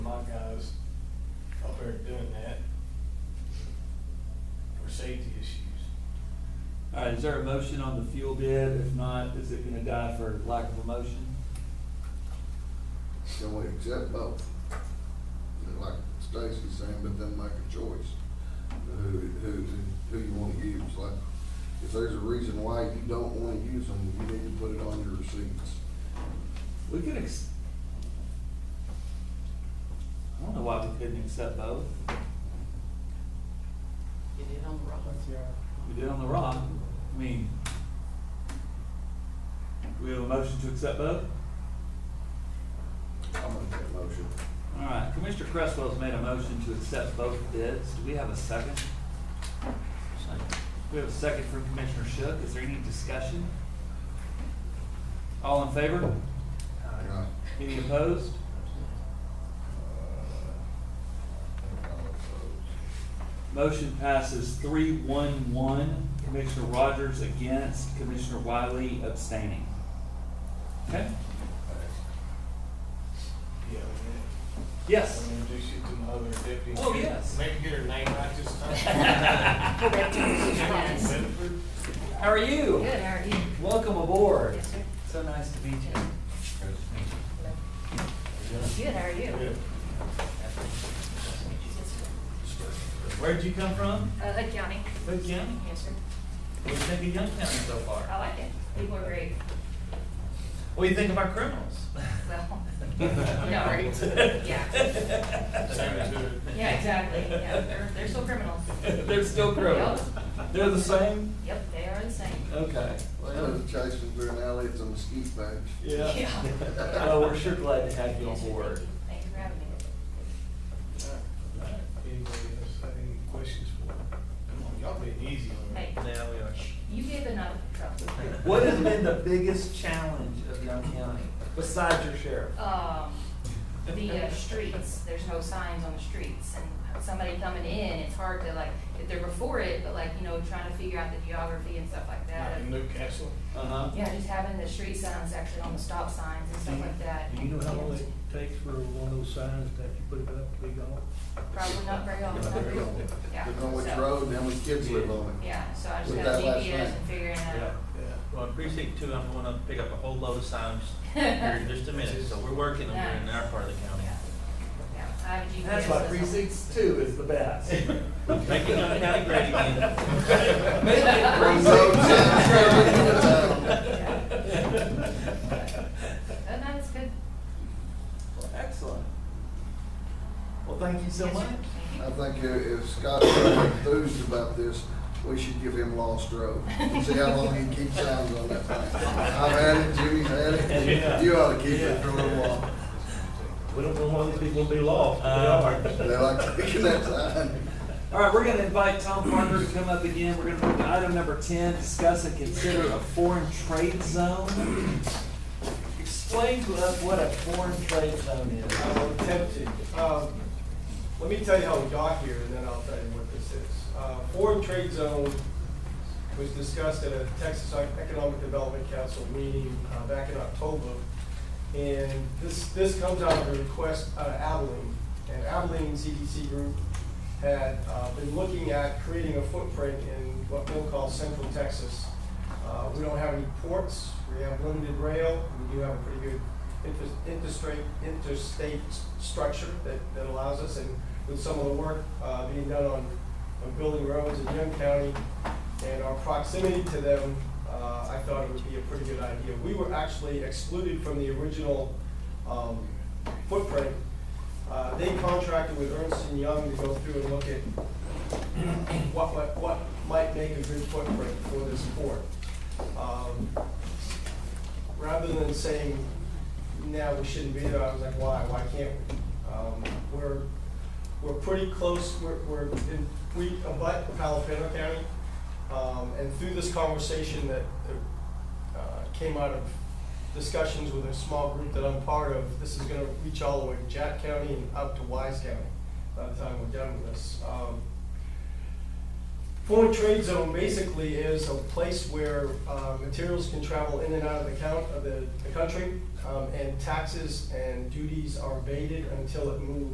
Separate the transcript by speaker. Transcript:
Speaker 1: right, is there a motion on the fuel bid? If not, is it gonna die for lack of a motion?
Speaker 2: Can we accept both? And Like Stacy's saying, but then make a choice, who, who, who you wanna use, like, if there's a reason why you don't wanna use them, you need to put it on your receipts.
Speaker 1: We could ex. I don't know why we couldn't accept both.
Speaker 3: Get in on the roll.
Speaker 1: We did on the rock. I mean, we have a motion to accept both?
Speaker 2: I'll make that motion.
Speaker 1: All right, Commissioner Cresswell's made a motion to accept both bids. Do we have a second? We have a second from Commissioner Shook. Is there any discussion? All in favor?
Speaker 2: Yeah.
Speaker 1: Any opposed? Motion passes three one one. Commissioner Rogers against, Commissioner Wiley abstaining. Okay?
Speaker 4: Yeah, we
Speaker 1: Yes.
Speaker 4: did. introduce you to my other deputy.
Speaker 1: Oh, yes.
Speaker 4: Maybe get her name right this time. Jackie Bedford.
Speaker 1: How are you?
Speaker 3: Good, how are you?
Speaker 1: Welcome aboard.
Speaker 3: Yes, sir.
Speaker 1: So nice to meet you.
Speaker 3: Good, how are you?
Speaker 1: Where'd you come from?
Speaker 3: Uh, Hood County.
Speaker 1: Hood County?
Speaker 3: Yes, sir.
Speaker 1: What do you think of Young County so
Speaker 3: I
Speaker 1: far?
Speaker 3: like it. People are great.
Speaker 1: What do you think of our criminals?
Speaker 3: Well,
Speaker 4: Yeah,
Speaker 3: right. Yeah.
Speaker 4: Same as her.
Speaker 3: yeah, exactly. Yeah, they're, they're still criminals.
Speaker 1: They're still criminals. They're the same?
Speaker 3: Yep, they are the same.
Speaker 1: Okay.
Speaker 2: Instead of chasing through an alley, it's a mesquite patch.
Speaker 1: Yeah.
Speaker 3: Yeah.
Speaker 1: Well, Oh, we're sure glad to have you on
Speaker 3: Yes, sir.
Speaker 1: board.
Speaker 3: Thank you for having me.
Speaker 4: Anybody else have any questions for her? Come on, y'all be easy on her.
Speaker 3: Hey,
Speaker 1: Yeah, we are.
Speaker 3: you gave enough trouble.
Speaker 1: What has been the biggest challenge of Young County besides your sheriff?
Speaker 3: um, the uh, streets, there's no signs on the streets, and somebody coming in, it's hard to like, if they're before it, but like, you know, trying to figure out the geography and stuff like that.
Speaker 4: Like in Newcastle.
Speaker 1: Uh-huh.
Speaker 3: Yeah, just having the street signs actually on the stop signs and stuff like that.
Speaker 5: Do you know how long it takes for one of those signs to actually put it up to be gone?
Speaker 3: Probably not very often, not very often, yeah.
Speaker 2: Depending on which
Speaker 3: so-
Speaker 2: road and how many kids live on it.
Speaker 3: Yeah, so I just
Speaker 2: With
Speaker 3: got
Speaker 2: that last
Speaker 3: GPS
Speaker 2: night.
Speaker 3: and figuring out.
Speaker 4: Yeah.
Speaker 6: Well, in precinct two, I'm gonna pick up a whole load of signs here in just a minute, so we're working them here in our part of the county.
Speaker 3: Yeah, yeah, I have GPS.
Speaker 1: That's why
Speaker 3: system.
Speaker 1: precincts two is the best.
Speaker 6: Making our county great again.
Speaker 1: Make it precinct
Speaker 2: Road signs,
Speaker 1: two.
Speaker 3: Oh, no, it's good.
Speaker 1: Excellent. Well, thank you so
Speaker 3: Yes, sir.
Speaker 1: much.
Speaker 3: Thank you.
Speaker 2: I think if if Scott's really enthused about this, we should give him Lost Road. See how long he keeps signs on that thing. I've had it, Jimmy's had it. You ought to keep it for a little while.
Speaker 5: We don't know how these people will be lost, but
Speaker 2: They like taking that sign.
Speaker 1: All right, we're gonna invite Tom Parker to come up again. We're gonna move to item number ten, discuss and consider a foreign trade zone. Explain to us what a foreign trade zone is.
Speaker 7: I will attempt to. Um, Let me tell you how we got here, and then I'll tell you what this is. Uh, Foreign trade zone was discussed at a Texas Economic Development Council meeting uh, back in October. And this, this comes out of a request out of Abilene. And Abilene CDC Group had uh, been looking at creating a footprint in what we'll call central Texas. Uh, We don't have any ports, we have limited rail, we do have a pretty good inter- interstate, interstate s- structure that, that allows us. And with some of the work uh, being done on, on building roads in Young County and our proximity to them, uh, I thought it would be a pretty good idea. We were actually excluded from the original um, footprint. Uh, They contracted with Ernst and Young to go through and look at what, what, what might make a good footprint for this port. Um, Rather than saying, now we shouldn't be there, I was like, why, why can't we? Um, We're, we're pretty close, we're, we're, in- we abut Palafano County. Um, and through this conversation that, that, uh, came out of discussions with a small group that I'm part of, this is gonna reach all the way to Jack County and out to Wise County by the time we're done with this. Um, Foreign trade zone basically is a place where uh, materials can travel in and out of the count, of the, the country, um, and taxes and duties are abated until it moves